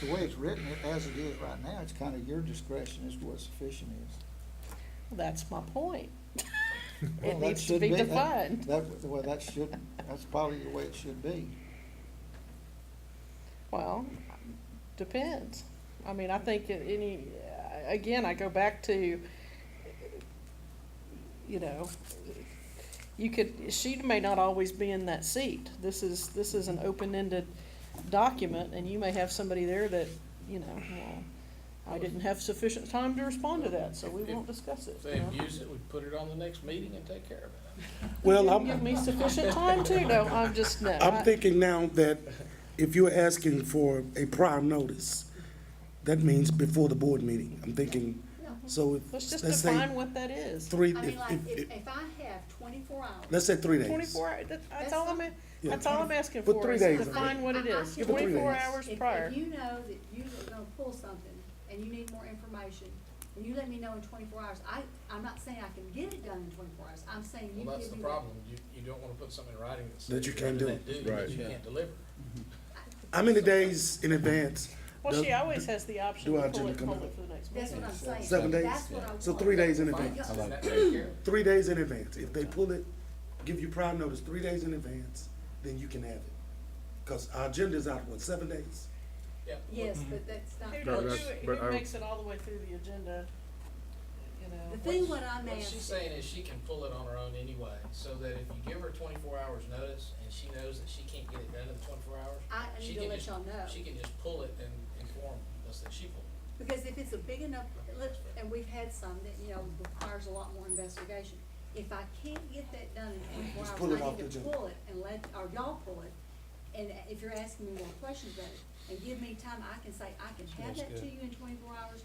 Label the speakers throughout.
Speaker 1: the way it's written, as it is right now, it's kind of your discretion as to what sufficient is.
Speaker 2: That's my point.
Speaker 1: Well,
Speaker 2: It
Speaker 1: that
Speaker 2: needs to
Speaker 1: should
Speaker 2: be
Speaker 1: that-
Speaker 2: defined.
Speaker 1: That, well, that should, that's probably the way it should be.
Speaker 2: Well, depends. I mean, I think it- any, again, I go back to, you know, you could, she may not always be in that seat. This is, this is an open-ended document, and you may have somebody there that, you know, well, I didn't have sufficient time to respond to that, so we won't discuss it.
Speaker 3: If
Speaker 2: you
Speaker 3: they
Speaker 2: know?
Speaker 3: abuse it, we put it on the next meeting and take care of it.
Speaker 4: Well,
Speaker 2: You Give
Speaker 4: I'm,
Speaker 2: me sufficient time too, no, I'm just, no. I-
Speaker 4: I'm thinking now that if you're asking for a prior notice, that means before the board meeting. I'm thinking, so if,
Speaker 2: Let's just
Speaker 4: let's say
Speaker 2: define what that is.
Speaker 4: three,
Speaker 5: I
Speaker 4: if,
Speaker 5: mean, like,
Speaker 4: if,
Speaker 5: if,
Speaker 4: if-
Speaker 5: if I have twenty-four hours.
Speaker 4: let's say three days.
Speaker 2: Twenty-four, hour- that- that's
Speaker 5: That's
Speaker 2: all I'm,
Speaker 5: fine.
Speaker 4: Yeah.
Speaker 2: that's all I'm asking
Speaker 4: Put
Speaker 2: for,
Speaker 4: three
Speaker 2: is
Speaker 4: days, I
Speaker 2: define
Speaker 5: think.
Speaker 2: what it is,
Speaker 5: Yeah, put three
Speaker 2: twenty-four
Speaker 4: days.
Speaker 2: hours
Speaker 5: If-
Speaker 2: prior.
Speaker 5: If you know that you're gonna pull something and you need more information, and you let me know in twenty-four hours, I, I'm not saying I can get it done in twenty-four hours, I'm saying you give me.
Speaker 3: Well, that's the
Speaker 5: that-
Speaker 3: problem. You, you don't wanna put something in writing that says.
Speaker 4: That you
Speaker 3: you're
Speaker 4: can't
Speaker 3: gonna
Speaker 4: do.
Speaker 3: That
Speaker 6: Right.
Speaker 3: you
Speaker 6: Yeah.
Speaker 3: can't deliver.
Speaker 4: How many days in advance?
Speaker 2: Well, she
Speaker 4: Does-
Speaker 2: always has the option
Speaker 4: do
Speaker 2: to
Speaker 4: our
Speaker 2: pull
Speaker 4: agenda
Speaker 2: it,
Speaker 4: come
Speaker 2: hold
Speaker 4: out?
Speaker 2: it for the next
Speaker 5: That's
Speaker 2: meeting.
Speaker 5: what I'm saying.
Speaker 4: Seven days?
Speaker 5: That's what I want.
Speaker 4: So three days in
Speaker 3: Fine,
Speaker 4: advance.
Speaker 5: I
Speaker 3: then that
Speaker 5: like
Speaker 3: takes care of it.
Speaker 4: Three days in advance. If they pull it, give you prior notice, three days in advance, then you can have it. Cause our agenda's out, what, seven days?
Speaker 3: Yeah.
Speaker 5: Yes, but that's not.
Speaker 2: Who
Speaker 6: No,
Speaker 2: does-
Speaker 6: that's-
Speaker 2: who-
Speaker 6: but
Speaker 2: who
Speaker 6: I-
Speaker 2: makes it all the way through the agenda, you know?
Speaker 5: The
Speaker 2: what-
Speaker 5: thing what I'm
Speaker 3: What she's
Speaker 5: asking,
Speaker 3: saying is she can pull it on her own anyway, so that if you give her twenty-four hours notice and she knows that she can't get it done in the twenty-four hours.
Speaker 5: I I
Speaker 3: she
Speaker 5: need to
Speaker 3: can
Speaker 5: let
Speaker 3: just-
Speaker 5: y'all know,
Speaker 3: She can just pull it and inform us that she pulled
Speaker 5: because if it's a big enough, let- and we've had some that, you know, requires a lot more investigation. If I can't get that done in twenty-four
Speaker 4: Just pull it
Speaker 5: hours, I
Speaker 4: off the
Speaker 5: need to
Speaker 4: agenda.
Speaker 5: pull it and let, or y'all pull it. And if you're asking me more questions about it, and give me time, I can say, I can have that to you in twenty-four hours,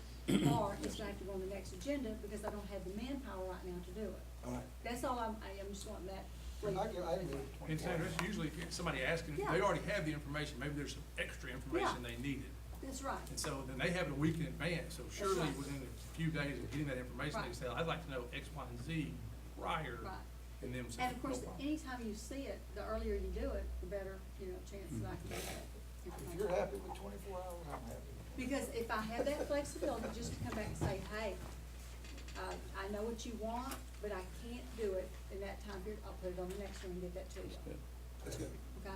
Speaker 5: or it's gonna have to go on the next agenda, because I don't have the manpower right now to do it.
Speaker 4: All right.
Speaker 5: That's all I'm, I am just wanting that.
Speaker 1: I give, I give it
Speaker 7: And
Speaker 1: 24
Speaker 7: Sandra,
Speaker 1: hours.
Speaker 7: that's usually if somebody asking,
Speaker 5: Yeah.
Speaker 7: they already have the information, maybe there's some extra information they needed.
Speaker 5: That's right.
Speaker 7: And so then they have it a week in advance, so surely
Speaker 5: right.
Speaker 7: within a few days of getting that information, they
Speaker 5: Right.
Speaker 7: say, I'd like to know X, Y, and Z prior.
Speaker 5: Right.
Speaker 7: And them saying,
Speaker 5: And of
Speaker 7: no
Speaker 5: course,
Speaker 7: problem.
Speaker 5: anytime you see it, the earlier you do it, the better, you know, chance that I can get that.
Speaker 1: If
Speaker 5: information.
Speaker 1: you're happy with twenty-four hours, I'm happy.
Speaker 5: Because if I have that flexibility, just to come back and say, hey, uh, I know what you want, but I can't do it in that time period, I'll put it on the next one and get that to you. Okay?
Speaker 4: That's good.
Speaker 5: All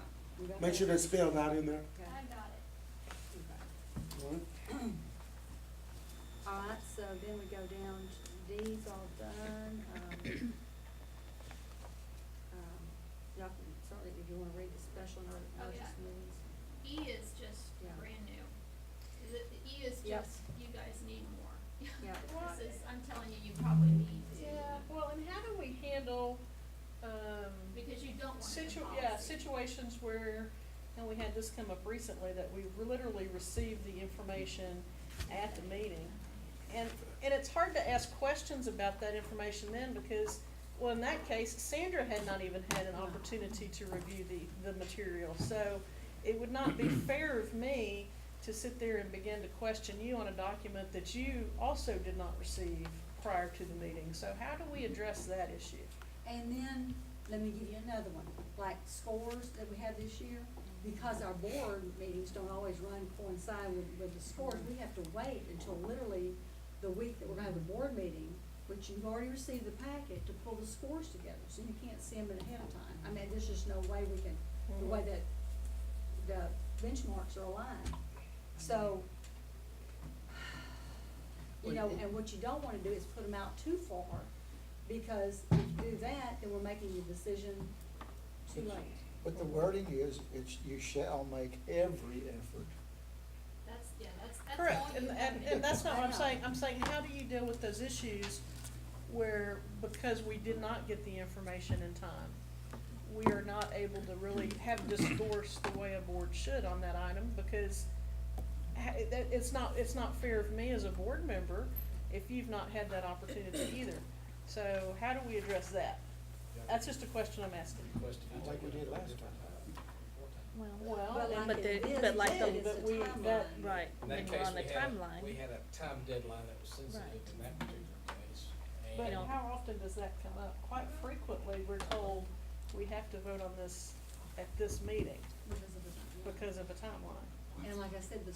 Speaker 5: right. We got
Speaker 4: Make
Speaker 5: that?
Speaker 4: sure that's spelled out in there.
Speaker 5: Okay.
Speaker 8: I got it.
Speaker 5: Okay.
Speaker 4: All right.
Speaker 5: All right, so then we go down, to D's all done, um, um, y'all can, certainly if you wanna read the special
Speaker 8: Oh,
Speaker 5: notice
Speaker 8: yeah.
Speaker 5: means.
Speaker 8: E is just
Speaker 5: Yeah.
Speaker 8: brand new. The, the E is
Speaker 5: Yep.
Speaker 8: just, you guys need more.
Speaker 5: Yeah.
Speaker 2: Well,
Speaker 8: This is, I'm telling you, you probably need to.
Speaker 2: Yeah, well, and how do we handle, um,
Speaker 8: Because you don't want it in
Speaker 2: Situ-
Speaker 8: policy.
Speaker 2: yeah, situations where, and we had this come up recently, that we literally received the information at the meeting. And, and it's hard to ask questions about that information then, because, well, in that case, Sandra had not even had an opportunity to review the, the material. So it would not be fair of me to sit there and begin to question you on a document that you also did not receive prior to the meeting. So how do we address that issue?
Speaker 5: And then, let me give you another one, like scores that we had this year, because our board meetings don't always run coincide with, with the scores, we have to wait until literally the week that we're gonna have a board meeting, which you've already received the packet, to pull the scores together, so you can't see them ahead of time. I mean, there's just no way we can, the way that the benchmarks are aligned. So, you know, and what you don't wanna do is put them out too far, because if you do that, then we're making the decision too late.
Speaker 1: But the wording is, it's, you shall make every effort.
Speaker 8: That's, yeah, that's, that's all you
Speaker 2: Correct, and,
Speaker 8: have
Speaker 2: and,
Speaker 8: to do.
Speaker 2: and that's not what I'm
Speaker 5: Yeah.
Speaker 2: saying, I'm saying, how do you deal with those issues where, because we did not get the information in time, we are not able to really have discourse the way a board should on that item, because ha- it- that- it's not, it's not fair of me as a board member if you've not had that opportunity either. So how do we address that? That's just a question I'm asking.
Speaker 3: Question.
Speaker 1: I think we did last time.
Speaker 2: Well,
Speaker 5: Well,
Speaker 2: and-
Speaker 5: like
Speaker 9: But the,
Speaker 5: it is,
Speaker 9: but like
Speaker 5: it
Speaker 9: the,
Speaker 5: is, it's
Speaker 2: but we,
Speaker 5: a
Speaker 2: that,
Speaker 5: timeline.
Speaker 9: right,
Speaker 3: In
Speaker 9: when
Speaker 3: that
Speaker 9: you're
Speaker 3: case,
Speaker 9: on the
Speaker 3: we had, a- we
Speaker 9: timeline,
Speaker 3: had a time deadline that was sensitive
Speaker 9: Right.
Speaker 3: in that particular case.
Speaker 2: But
Speaker 3: and-
Speaker 2: how often does that come up? Quite frequently, we're told we have to vote on this at this meeting
Speaker 5: Because of the-
Speaker 2: because of a timeline.
Speaker 5: And like I said, the